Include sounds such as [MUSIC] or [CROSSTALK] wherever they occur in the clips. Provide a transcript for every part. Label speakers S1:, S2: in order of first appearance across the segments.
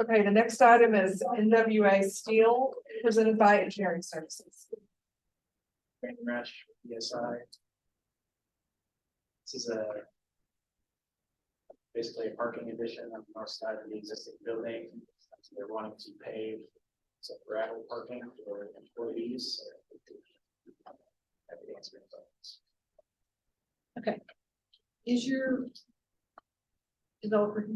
S1: Okay, the next item is NWA Steel presented by Engineering Services.
S2: Brandon Rush, ESI. This is a. Basically a parking addition on the north side of the existing building. So They're wanting to pave some gravel parking for employees. Everything's been done.
S1: Is your developer?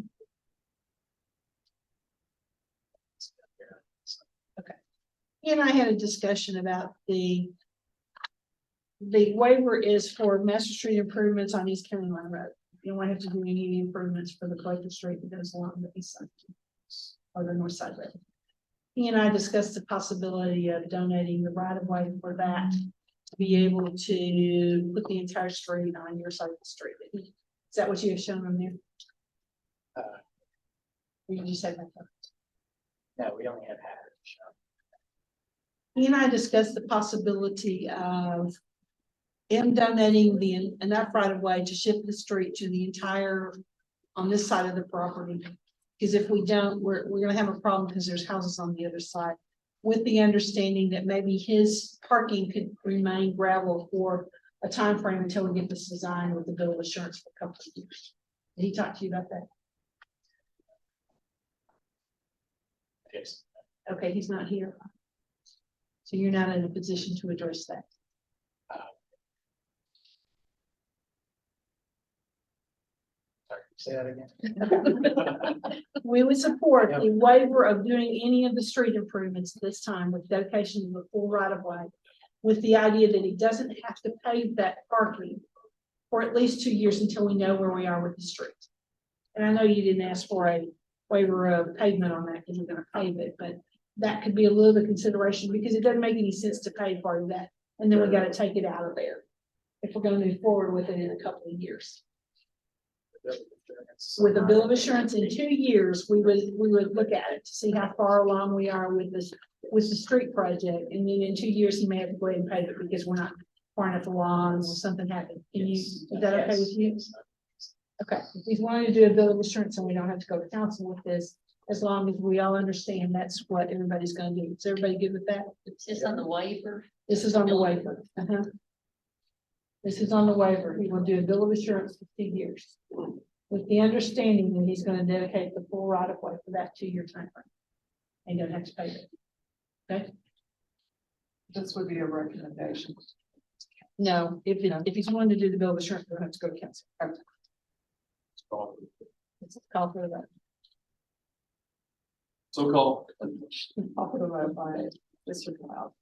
S3: He and I had a discussion about the. The waiver is for Master Street improvements on East County Line Road. You don't have to do any improvements for the collector street that goes along the east side. Or the north side road. He and I discussed the possibility of donating the right of way for that. To be able to put the entire street on your side of the street. Is that what you have shown on there?
S2: Uh.
S3: Or did you say that?
S2: No, we only had half. of the shop.
S3: He and I discussed the possibility of. Him donating the enough right of way to shift the street to the entire, on this side of the property. Because if we don't, we're, we're gonna have a problem because there's houses on the other side. With the understanding that maybe his parking could remain gravel for a time frame until we get this design with the bill of assurance for a couple of years. Did he talk to you about that?
S2: Yes.
S3: Okay, he's not here. So you're not in a position to address that.
S2: Sorry, say that again.
S3: We would support
S2: Yeah.
S3: the waiver of doing any of the street improvements this time with dedication of the full right of way. With the idea that he doesn't have to pave that parking for at least two years until we know where we are with the street. And I know you didn't ask for a waiver of pavement on that because we're gonna pave it, but that could be a little bit consideration because it doesn't make any sense to pave part of that. And then we gotta take it out of there if we're gonna move forward with it in a couple of years [LAUGHS] with a bill of assurance in two years, we would, we would look at it to see how far along we are with this, with the street project. And then in two years, he may have to go ahead and pay it because we're not far enough along or something happened. Can you, is that okay with you? Okay, if we wanted to do a bill of assurance and we don't have to go to council with this, as long as we all understand that's what everybody's gonna do. Is everybody good with that?
S4: It's just on the waiver.
S3: This is on the waiver. Uh-huh. This is on the waiver. He will do a bill of assurance for two years. With the understanding that he's gonna dedicate the full right of way for that two-year timeframe. And don't have to pay it.
S1: This would be a recommendation.
S3: No, if, it- if he's wanting to do the bill of assurance, we'll have to go to council. Okay, let's Call for the vote.
S2: So called.
S1: I'll put a vote by Mr. Cloud.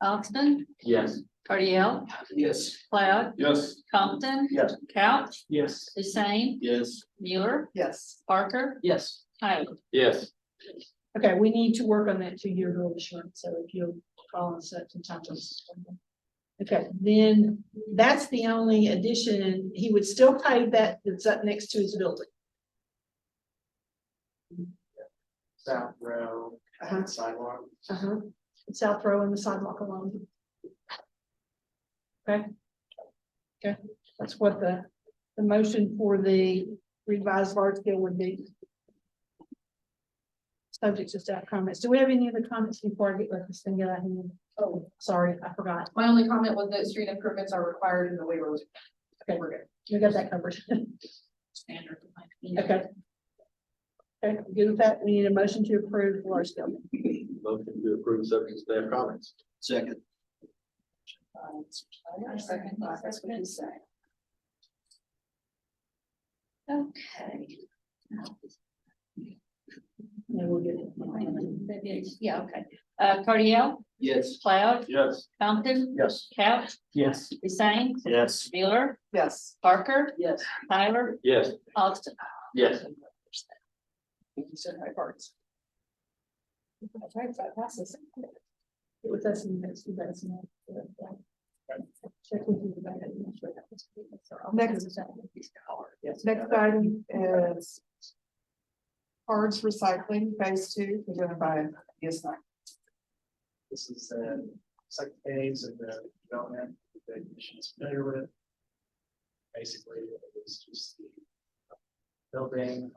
S4: Austin,
S2: Yes.
S4: Cardiel,
S2: Yes.
S4: Cloud,
S2: Yes.
S4: Compton.
S2: Yes.
S4: Couch,
S2: Yes.
S4: Hussein,
S2: Yes.
S4: Mueller,
S1: Yes.
S4: Parker,
S2: Yes.
S4: Tyler.
S2: Yes.
S3: Okay, we need to work on that two-year bill of assurance, so if you'll call and set some time. to- Okay, then that's the only addition, he would still pay that that's up next to his building.
S2: South row,
S3: Uh-huh.
S2: sidewalk.
S3: Uh-huh, South Row and the sidewalk alone. Okay. Okay, that's what the, the motion for the revised large scale would be. Subject to staff comments. Do we have any other comments before I get like this thing out of hand? Oh, sorry, I forgot.
S1: My only comment was that street improvements are required in the waiver. Okay, we're good.
S3: We got that covered. [LAUGHS]
S4: Standard.
S3: Okay. Okay, good with that. We need a motion to approve the large scale.
S5: Motion to approve subject to staff comments. Second.
S4: Okay.
S3: Yeah, we'll get
S4: That is- Yeah, okay. Uh, Cardiel,
S5: Yes.
S4: Cloud,
S5: Yes.
S4: Compton,
S5: Yes.
S4: Couch,
S2: Yes.
S4: Hussein,
S5: Yes.
S4: Mueller,
S1: Yes.
S4: Parker,
S1: Yes.
S4: Tyler,
S5: Yes.
S4: Austin.
S5: Yes.
S3: It was us in the next few days. and I'll- Check with you about it. and make sure that was- that's all.
S1: Next. Next item is cards recycling phase two presented by E ESI.
S2: This is the second phase of the development that the commission is familiar with. Basically, it was just the building